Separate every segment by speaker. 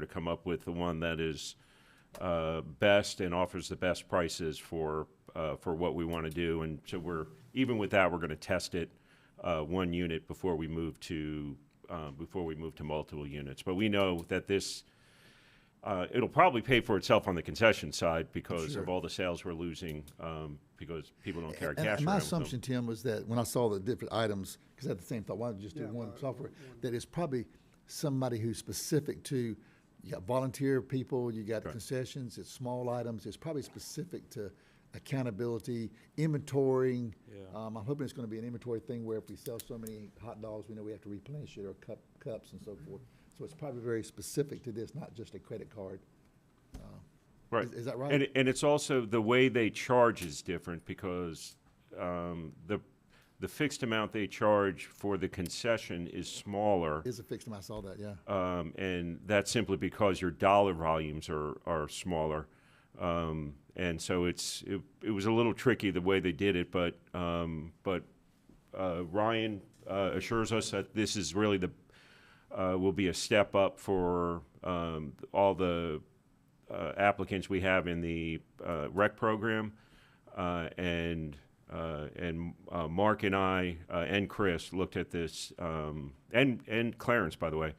Speaker 1: to come up with the one that is uh, best and offers the best prices for, uh, for what we want to do. And so we're, even with that, we're going to test it uh, one unit before we move to, uh, before we move to multiple units. But we know that this, uh, it'll probably pay for itself on the concession side because of all the sales we're losing, um, because people don't carry
Speaker 2: And-
Speaker 1: cash
Speaker 2: And my
Speaker 1: around with them.
Speaker 2: assumption, Tim, was that when I saw the different items, because I had the same thought, why don't you just do one software? That it's probably somebody who's specific to, you got volunteer people, you got concessions, it's small items, it's probably specific to accountability, inventorying. Um, I'm hoping it's gonna be an inventory thing where if we sell so many hot dogs, we know we have to replenish it, or cup, cups and so forth. So it's probably very specific to this, not just a credit card.
Speaker 1: Right.
Speaker 2: Is- is that right?
Speaker 1: And, and it's also, the way they charge is different because um, the, the fixed amount they charge for the concession is smaller.
Speaker 2: It's a fixed amount, I saw that, yeah.
Speaker 1: Um, and that's simply because your dollar volumes are, are smaller. Um, and so it's, it, it was a little tricky the way they did it, but, um, but, uh, Ryan, uh, assures us that this is really the, uh, will be a step up for, um, all the, uh, applicants we have in the, uh, rec program. Uh, and, uh, and, uh, Mark and I, uh, and Chris looked at this, um, and, and Clarence, by the way,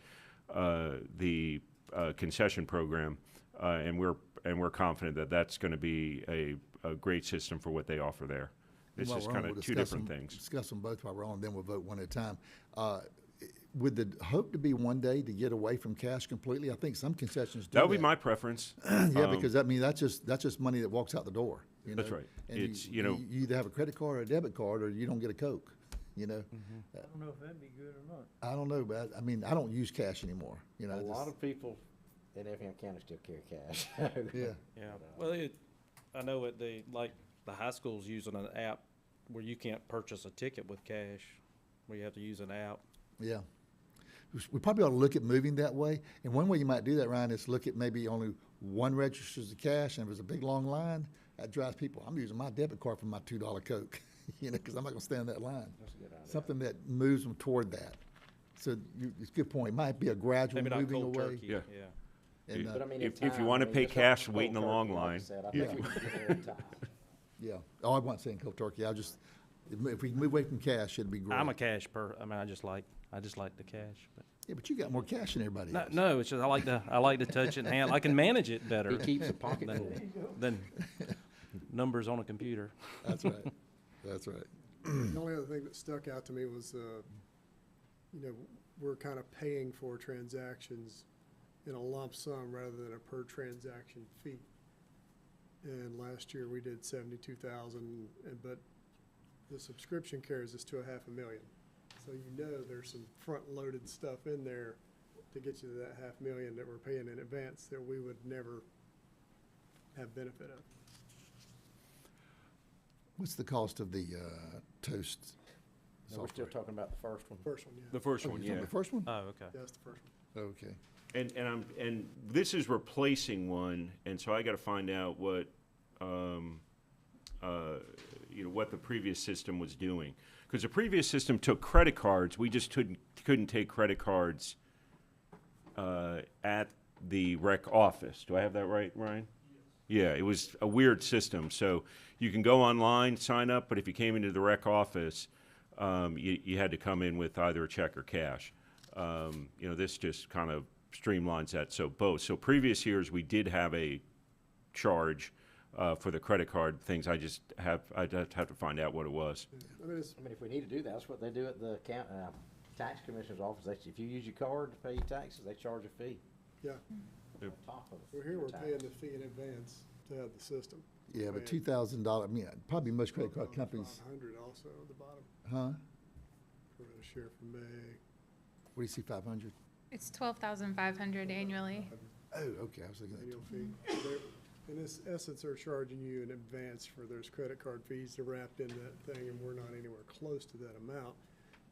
Speaker 1: uh, the uh, concession program, uh, and we're and we're confident that that's going to be a, a great system for what they offer there. It's
Speaker 2: While
Speaker 1: just
Speaker 2: we're on,
Speaker 1: kind of
Speaker 2: we'll
Speaker 1: two
Speaker 2: discuss
Speaker 1: different
Speaker 2: them-
Speaker 1: things.
Speaker 2: Discuss them both while we're on, then we'll vote one at a time. Uh, With the hope to be one day to get away from cash completely, I think some concessions do that.
Speaker 1: That would be my preference.
Speaker 2: Yeah, because that means that's just, that's just money that walks out the door, you know?
Speaker 1: That's right.
Speaker 2: And you-
Speaker 1: It's, you know-
Speaker 2: You either have a credit card or a debit card, or you don't get a Coke, you know?
Speaker 3: I don't know if that'd be good or not.
Speaker 2: I don't know, but I I mean, I don't use cash anymore, you know? I
Speaker 4: A lot
Speaker 2: just-
Speaker 4: of people in Effingham County still carry cash.
Speaker 2: Yeah,
Speaker 5: Yeah,
Speaker 1: uh,
Speaker 5: well, it, I know at the, like, the high school's using an app where you can't purchase a ticket with cash, where you have to use an app.
Speaker 2: yeah. We s- We probably ought to look at moving that way, and one way you might do that, Ryan, is look at maybe only one registers the cash, and if it's a big, long line, that drives people, I'm using my debit card for my two dollar Coke, you know, because I'm not gonna stand in that line. Something that moves them toward that. So you, it's a good point, It might be a gradual
Speaker 5: Maybe not
Speaker 2: moving
Speaker 5: cold
Speaker 2: away.
Speaker 5: turkey,
Speaker 1: Yeah.
Speaker 5: yeah.
Speaker 2: and, uh,
Speaker 4: But I mean,
Speaker 1: If-
Speaker 4: in
Speaker 1: if you
Speaker 4: time,
Speaker 1: wanna
Speaker 4: I mean,
Speaker 1: pay
Speaker 4: just like
Speaker 1: cash,
Speaker 4: the
Speaker 1: wait in the
Speaker 4: cold
Speaker 1: long
Speaker 4: turkey, like you
Speaker 1: line.
Speaker 4: said, I think we can get there in time.
Speaker 2: Yeah. Oh, I wasn't saying cold turkey. I just, if we- if we can move away from cash, it'd be great.
Speaker 5: I'm a cash per, I mean, I just like, I just like the cash, but,
Speaker 2: Yeah, but you got more cash than everybody
Speaker 5: no,
Speaker 2: else.
Speaker 5: no, it's just, I like to, I like to touch it and handle, I can manage it better.
Speaker 4: He keeps a pocket full.
Speaker 5: than, than numbers on a computer.
Speaker 2: That's right. That's right.
Speaker 6: The only other thing that stuck out to me was, uh, you know, we're kind of paying for transactions in a lump sum rather than a per transaction fee. And last year, we did seventy-two thousand, and but the subscription carries us to a half a million. So you know there's some front-loaded stuff in there to get you to that half million that we're paying in advance that we would never have benefit of.
Speaker 2: What's the cost of the uh, toast?
Speaker 4: So we're still talking about the first one.
Speaker 6: First one, yeah.
Speaker 1: The first
Speaker 2: Oh,
Speaker 1: one,
Speaker 2: you're
Speaker 1: yeah.
Speaker 2: talking about The first one?
Speaker 5: Oh, okay.
Speaker 6: That's the first one.
Speaker 2: Okay.
Speaker 1: And and I'm and this is replacing one, and so I got to find out what, um, uh, you know, what the previous system was doing, because the previous system took credit cards. We just couldn't couldn't take credit cards. Uh, at the rec office. Do I have that right, Ryan? Yeah, it was a weird system. So you can go online, sign up, but if you came into the rec office, um, you, you had to come in with either a check or cash. Um, you know, this just kind of streamlines that. So both. So previous years we did have a charge uh, for the credit card things. I just have I'd have to find out what it was.
Speaker 6: I mean, it's,
Speaker 4: I mean, if we need to do that, that's what they do at the count, uh, tax commissioner's office. They, if you use your card to pay your taxes, they charge a fee
Speaker 6: yeah.
Speaker 4: on top of.
Speaker 6: We're here,
Speaker 4: your
Speaker 6: we're paying
Speaker 4: tax.
Speaker 6: the fee in advance to have the system.
Speaker 2: Yeah, but two thousand dollar, I mean, probably most credit card companies,
Speaker 6: Five hundred also at the bottom,
Speaker 2: huh?
Speaker 6: for a share from May.
Speaker 2: What do you see, five hundred?
Speaker 7: It's twelve thousand five hundred annually.
Speaker 2: Oh, okay, I was looking at,
Speaker 6: annual fee. They're- In this essence, they're charging you in advance for those credit card fees that are wrapped in that thing, and we're not anywhere close to that amount.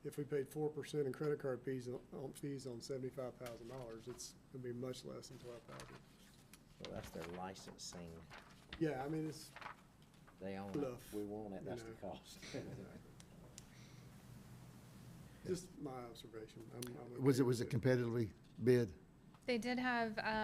Speaker 6: If we paid four percent in credit card fees, on- on, fees on seventy-five thousand dollars, it's gonna be much less than twelve thousand.
Speaker 4: Well, that's their licensing.
Speaker 6: Yeah, I mean, it's,
Speaker 4: They own it.
Speaker 6: Bluff,
Speaker 4: We want it.
Speaker 6: you
Speaker 4: That's the
Speaker 6: know.
Speaker 4: cost.
Speaker 6: just my observation. I'm- I'm okay
Speaker 2: was it,
Speaker 6: with
Speaker 2: was it competitively bid?
Speaker 7: They did have, um,